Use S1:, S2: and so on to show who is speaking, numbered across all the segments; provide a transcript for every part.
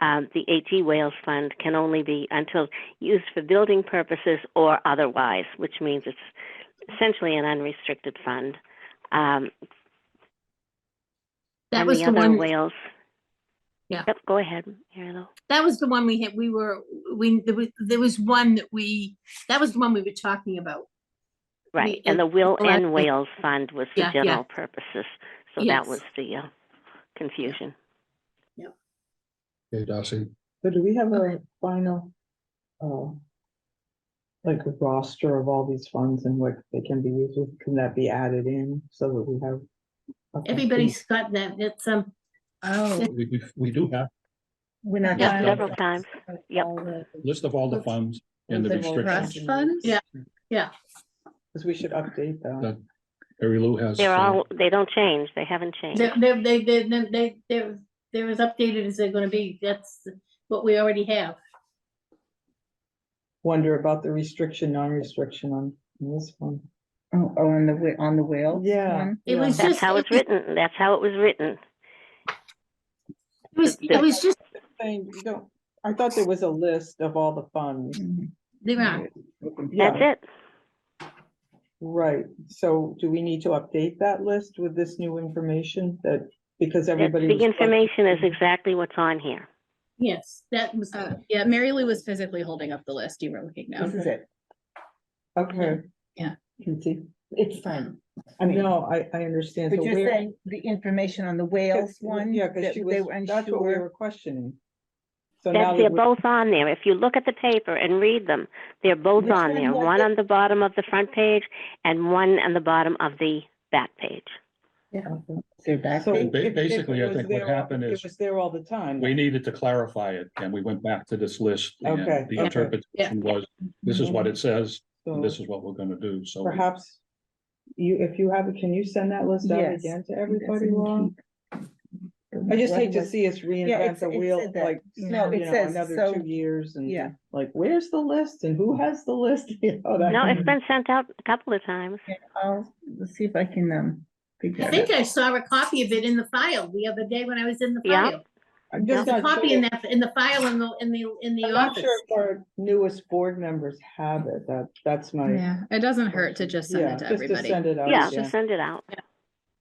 S1: um, the AG Wales Fund can only be until used for building purposes or otherwise, which means it's essentially an unrestricted fund. Um,
S2: That
S1: and
S2: was
S1: the
S2: the
S1: other
S2: one,
S1: Wales.
S2: Yeah.
S1: Yep, go ahead, Marilyn.
S2: that was the one we had, we were, we, there was, there was one that we, that was the one we were talking about.
S1: Right,
S2: uh,
S1: and the Will
S2: well, I-
S1: and Wales Fund was for
S2: Yeah, yeah.
S1: general purposes, so that
S2: Yes.
S1: was the uh, confusion.
S3: Okay, Darcy.
S4: So do we have
S2: Okay.
S4: a final? uh, Like a roster of all these funds and what they can be used with, can that be added in so that we have? a complete-
S2: Everybody's got that, it's, um,
S5: Oh,
S3: We, we, we do have
S5: we're not.
S1: Yeah,
S5: done.
S1: several times. Yep.
S5: All the-
S3: a list of all the funds and the
S5: the trust
S3: restrictions.
S5: funds?
S2: Yeah.
S4: Because we should update that.
S3: That Mary Lou has.
S1: They're
S3: uh,
S1: all, they don't change, they haven't changed.
S2: they're, they're, they, they, they, they, they're, they're as updated as they're gonna be, that's what we already have.
S4: Wonder about the restriction, non-restriction on this one.
S5: Oh, oh, on the, whe- on the wheel?
S4: Yeah,
S2: It was
S1: That's
S2: just-
S1: how it's written, that's how it was written.
S2: It was, it was just,
S4: Thing, you don't, I thought there was a list of all the funds.
S2: they were,
S1: That's
S4: Yeah,
S1: it.
S4: right. So do we need to update that list with this new information that, because
S1: That-
S4: everybody.
S1: The
S4: was-
S1: information is exactly what's on here.
S2: yes, that was,
S6: Uh, yeah, Mary Lou was physically holding up the list you were looking now.
S5: This is it.
S4: Okay.
S6: Yeah.
S4: Can see.
S5: It's fine. I mean,
S4: No, I, I understand.
S5: but
S4: So
S5: you're
S4: where-
S5: saying the information on the
S4: Because-
S5: whales one?
S4: Yeah, because
S5: that
S4: she
S5: They
S4: was,
S5: were
S4: that's what we
S5: unsure.
S4: were questioning. So now
S1: That they're
S4: that we're-
S1: both on there. If you look at the paper and read them, they're both
S5: Which
S1: on
S5: one
S1: there.
S5: was
S1: One
S5: it?
S1: on the bottom of the front page and one on the bottom of the back page.
S5: They're back.
S4: so
S5: there.
S4: if-
S3: ba-
S4: if it
S3: basically, I
S4: was
S3: think what
S4: there-
S3: happened is-
S4: It was there all the time.
S3: We needed to clarify it and we went back to this list. and
S4: Okay,
S3: The
S4: okay.
S3: interpretation was, this is
S5: Mm-hmm.
S3: what it says, and this
S4: So
S3: is what we're gonna do, so. we-
S4: perhaps you, if you have, it, can you send that list out
S5: Yes.
S4: again to
S5: That's
S4: everybody,
S5: in
S4: Laura?
S5: keep.
S4: I just hate to
S5: What
S4: see us reinvent
S5: it's-
S4: the
S5: it
S4: wheel,
S5: said that.
S4: like, you
S5: No,
S4: know,
S5: it says,
S4: another
S5: so-
S4: two years and
S5: Yeah.
S4: like, where's the list and who has the list? You know, that
S1: No,
S4: kind
S1: it's
S4: of-
S1: been sent out a couple of times.
S5: was- I'll, let's see if I can, um. figure
S2: I
S5: it
S2: think
S5: out.
S2: I saw a copy of it in the file the other day when I was in the
S1: Yeah.
S2: file.
S4: I'm
S2: There's
S4: just
S2: a
S4: not
S2: copy
S4: sure-
S2: in that, in the file in the, in the, in the
S4: I'm not
S2: office.
S4: sure if our newest board members have it, that, that's my,
S6: Yeah, it doesn't hurt to just send
S4: yeah,
S6: it to
S4: just to
S6: everybody.
S4: send it out.
S1: Yeah, just send it out.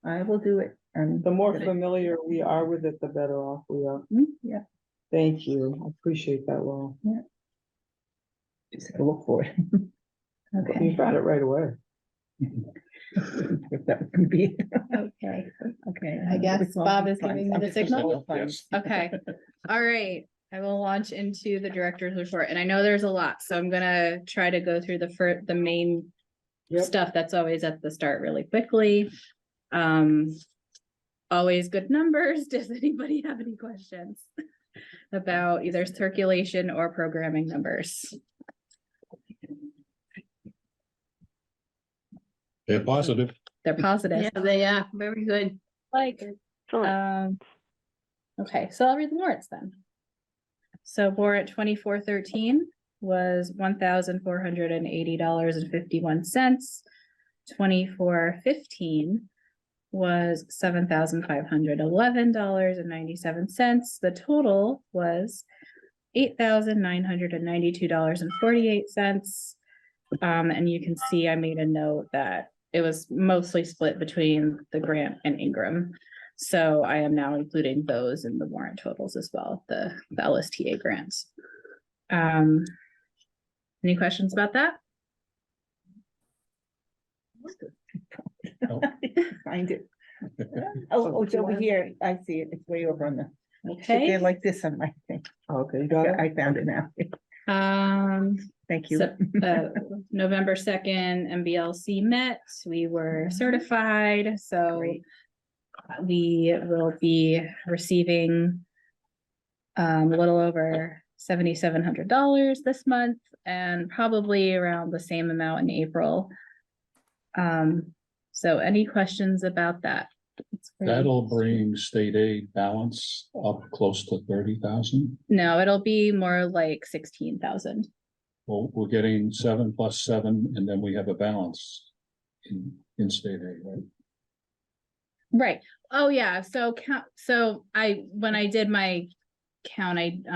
S5: I will do it. um,
S4: The more
S5: but-
S4: familiar we are with it, the better off we are.
S5: Mm, Yeah,
S4: Thank you. I appreciate that, Laura.
S5: just have to look for it.
S4: You
S5: Okay.
S4: got it right away.
S5: If that can be, okay, okay.
S6: I guess
S5: It's all
S6: Bob is
S5: fine.
S6: giving me
S5: I'm
S6: the
S5: just gonna
S6: signal.
S5: go find-
S3: Yes.
S6: Okay, all right. I will launch into the director's report and I know there's a lot, so I'm gonna try to go through the fir- the main
S4: Yep.
S6: stuff that's always at the start really quickly. Um, always good numbers. Does anybody have any questions about either circulation or programming numbers?
S3: They're positive.
S6: They're positive.
S2: Yeah, they are, very good.
S6: Like,
S1: Excellent.
S6: Um, okay, so I'll read the warrants then. So warrant twenty-four thirteen was one thousand four hundred and eighty dollars and fifty-one cents. Twenty-four fifteen was seven thousand five hundred eleven dollars and ninety-seven cents. The total was eight thousand nine hundred and ninety-two dollars and forty-eight cents. Um, and you can see I made a note that it was mostly split between the grant and Ingram. So I am now including those in the warrant totals as well, the, the LSTA grants. Um, any questions about that?
S5: Find it. Oh, oh, it's over here. I see it. It's way over on the,
S6: Okay,
S5: they're like this on my thing.
S4: Okay, you got it?
S5: I found it now.
S6: um,
S5: Thank you.
S6: So, uh, November second, MBLC met, we were certified, so
S5: Mm-hmm. Great.
S6: we will be receiving um, a little over seventy-seven hundred dollars this month and probably around the same amount in April. Um, so any questions about that? It's pretty-
S3: That'll bring state aid balance up close to thirty thousand.
S6: No, it'll be more like sixteen thousand.
S3: Well, we're getting seven plus seven, and then we have a balance in, in state aid, right?
S6: Right. Oh, yeah. So count, so I, when I did my count, I